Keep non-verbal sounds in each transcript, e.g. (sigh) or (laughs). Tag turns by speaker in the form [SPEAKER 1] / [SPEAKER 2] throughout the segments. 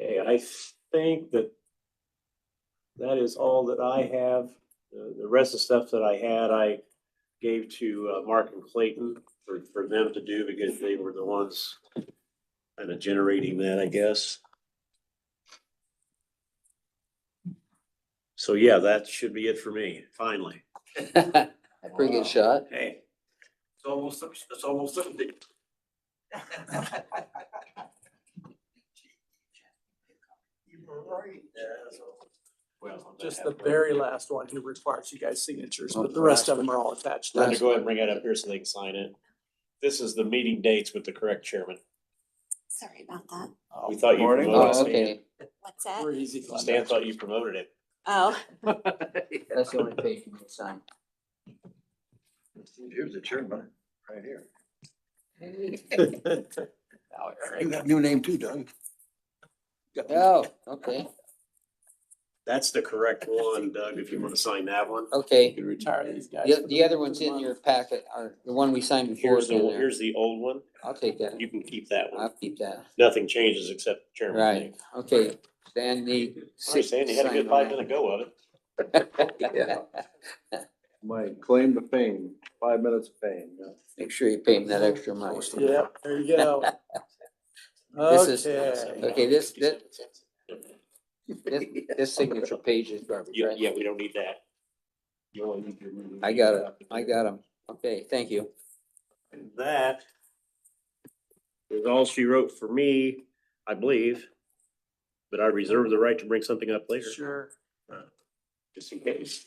[SPEAKER 1] Okay, I think that that is all that I have. The, the rest of the stuff that I had, I gave to uh, Mark and Clayton for, for them to do because they were the ones kind of generating that, I guess. So yeah, that should be it for me, finally.
[SPEAKER 2] (laughs) Pretty
[SPEAKER 3] (laughs)
[SPEAKER 2] good shot.
[SPEAKER 1] Hey,
[SPEAKER 4] It's almost, it's almost Sunday.
[SPEAKER 1] well,
[SPEAKER 5] Just the very last one who requires you guys' signatures, but the rest of them are all attached.
[SPEAKER 1] Brenda, go ahead and bring that up here so they can sign it. This is the meeting dates with the correct chairman.
[SPEAKER 6] Sorry about that.
[SPEAKER 1] We thought you
[SPEAKER 4] Morning.
[SPEAKER 1] promoted
[SPEAKER 2] Oh,
[SPEAKER 1] Stan.
[SPEAKER 2] okay.
[SPEAKER 6] What's that?
[SPEAKER 5] We're easy.
[SPEAKER 1] Stan thought you promoted it.
[SPEAKER 6] Oh,
[SPEAKER 2] That's the only page you can sign.
[SPEAKER 4] Here's the chairman, right here.
[SPEAKER 1] (laughs)
[SPEAKER 3] You got a new name too, Doug.
[SPEAKER 2] Oh, okay,
[SPEAKER 1] That's the correct one, Doug, if you want to sign that one.
[SPEAKER 2] okay.
[SPEAKER 5] Could retire these guys.
[SPEAKER 2] The, the other one's in your packet, or the one we signed before
[SPEAKER 1] Here's
[SPEAKER 2] is
[SPEAKER 1] the,
[SPEAKER 2] in there.
[SPEAKER 1] here's the old one.
[SPEAKER 2] I'll take that.
[SPEAKER 1] You can keep that one.
[SPEAKER 2] I'll keep that.
[SPEAKER 1] Nothing changes except the chairman.
[SPEAKER 2] Uh, Right, okay. Then the.
[SPEAKER 1] Sorry, Stan, you had a good five minute go of it.
[SPEAKER 2] Yeah.
[SPEAKER 4] My claim to fame, five minutes of fame.
[SPEAKER 2] (laughs) Make sure you pay him that
[SPEAKER 1] (laughs)
[SPEAKER 2] extra money.
[SPEAKER 5] Yeah, there you go.
[SPEAKER 2] (laughs) This is-
[SPEAKER 5] Okay.
[SPEAKER 2] Okay, this- that- This, this signature page is garbage,
[SPEAKER 1] Yeah,
[SPEAKER 2] right?
[SPEAKER 1] yeah, we don't need that. You only need your-
[SPEAKER 2] I got it. I got him. Okay, thank you.
[SPEAKER 1] And that is all she wrote for me, I believe. But I reserve the right to bring something up later,
[SPEAKER 5] Sure.
[SPEAKER 1] just in case.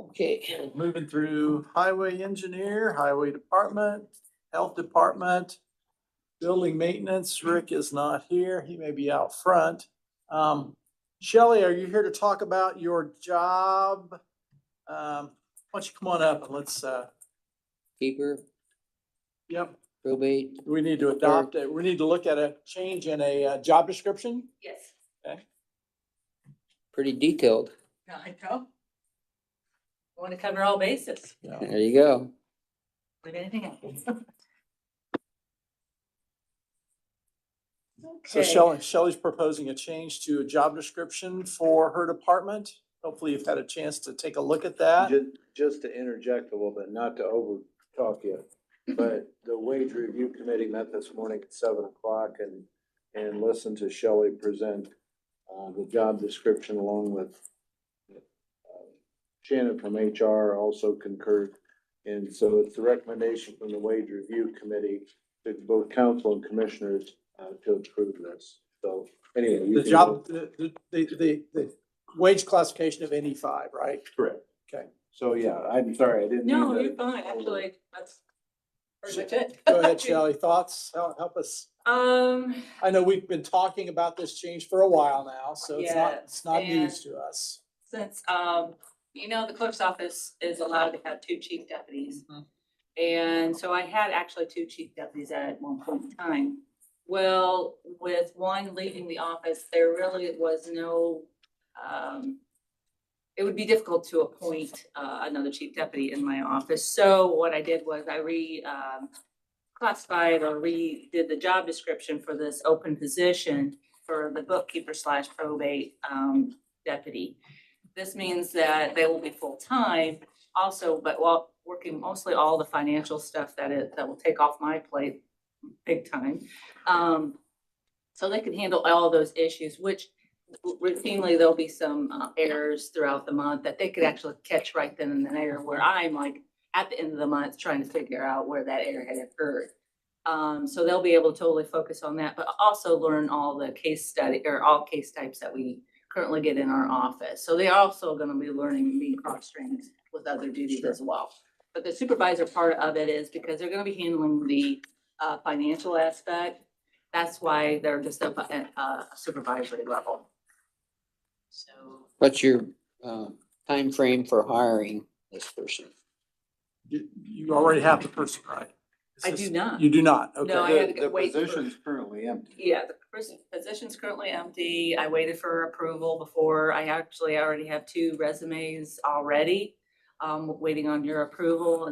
[SPEAKER 2] Okay.
[SPEAKER 5] Moving through highway engineer, highway department, health department, building maintenance. Rick is not here. He may be out front. Um, Shelley, are you here to talk about your job? Um, why don't you come on up and let's, uh,
[SPEAKER 2] Keeper,
[SPEAKER 5] yep,
[SPEAKER 2] probate,
[SPEAKER 5] Do We need to adopt it. We need to look at a change in a uh, job description.
[SPEAKER 7] Yes.
[SPEAKER 2] pretty detailed.
[SPEAKER 7] I know. Want to cover all bases,
[SPEAKER 2] There you go.
[SPEAKER 7] leave anything out.
[SPEAKER 5] So
[SPEAKER 7] Okay.
[SPEAKER 5] Shelley, Shelley's proposing a change to a job description for her department. Hopefully you've had a chance to take a look at that.
[SPEAKER 4] Just, just to interject a little bit, not to over talk you, but the wage review committee met this morning at seven o'clock and, and listened to Shelley present, uh, the job description along with uh, Shannon from HR also concurred. And so it's the recommendation from the wage review committee to both council and commissioners, uh, to approve this. So anyway. you
[SPEAKER 5] The
[SPEAKER 4] can-
[SPEAKER 5] job, the, the, the, the wage classification of NE five, right?
[SPEAKER 4] Correct.
[SPEAKER 5] Okay.
[SPEAKER 4] So, yeah, I'm sorry, I didn't. mean
[SPEAKER 7] No,
[SPEAKER 4] to-
[SPEAKER 7] you're fine, actually, that's pretty much it.
[SPEAKER 5] Go
[SPEAKER 7] (laughs)
[SPEAKER 5] ahead, Shelley. Thoughts? Help help us.
[SPEAKER 7] Um,
[SPEAKER 5] I know we've been talking about this change for a while now, so it's not, it's not
[SPEAKER 7] Yeah,
[SPEAKER 5] news to us.
[SPEAKER 7] since, um, you know, the clerk's office is allowed to have two chief deputies. And so I had actually two chief deputies at one point in time. Well, with one leaving the office, there really was no, um, it would be difficult to appoint, uh, another chief deputy in my office. So what I did was I re, um, classified or redid the job description for this open position for the bookkeeper slash probate, um, deputy. This means that they will be full-time, also, but while working mostly all the financial stuff that it, that will take off my plate big time. Um, so they can handle all those issues, which routinely there'll be some uh, errors throughout the month that they could actually catch right then and there where I'm like at the end of the month trying to figure out where that error had occurred. Um, so they'll be able to totally focus on that, but also learn all the case study or all case types that we currently get in our office. So they're also gonna be learning me cross-trained with other duties as well. But the supervisor part of it is because they're gonna be handling the uh financial aspect. That's why they're just up at a supervisory level. So
[SPEAKER 2] What's your, uh, frame for hiring this person?
[SPEAKER 5] You, you already have the person, right?
[SPEAKER 7] I do not.
[SPEAKER 5] You do not, okay.
[SPEAKER 7] No, I had
[SPEAKER 4] The
[SPEAKER 7] to go
[SPEAKER 4] the
[SPEAKER 7] wait for-
[SPEAKER 4] position's currently empty.
[SPEAKER 7] Yeah, the pers- position's currently empty. I waited for approval before. I actually already have two resumes already. Um, waiting on your approval